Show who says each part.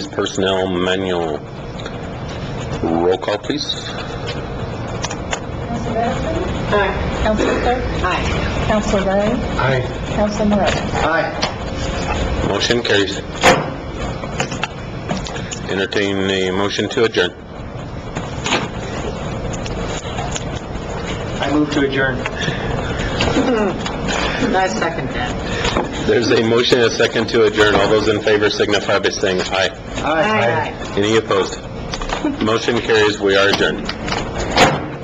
Speaker 1: personnel manual. Roll call, please.
Speaker 2: Council Madison? Aye. Council Cook? Aye. Council Ray?
Speaker 1: Aye.
Speaker 2: Council Morales?
Speaker 3: Aye.
Speaker 1: Motion carries. Entertain a motion to adjourn.
Speaker 3: I move to adjourn.
Speaker 4: I second that.
Speaker 1: There's a motion and a second to adjourn. All those in favor signify by saying aye.
Speaker 3: Aye.
Speaker 1: Any opposed? Motion carries. We are adjourned.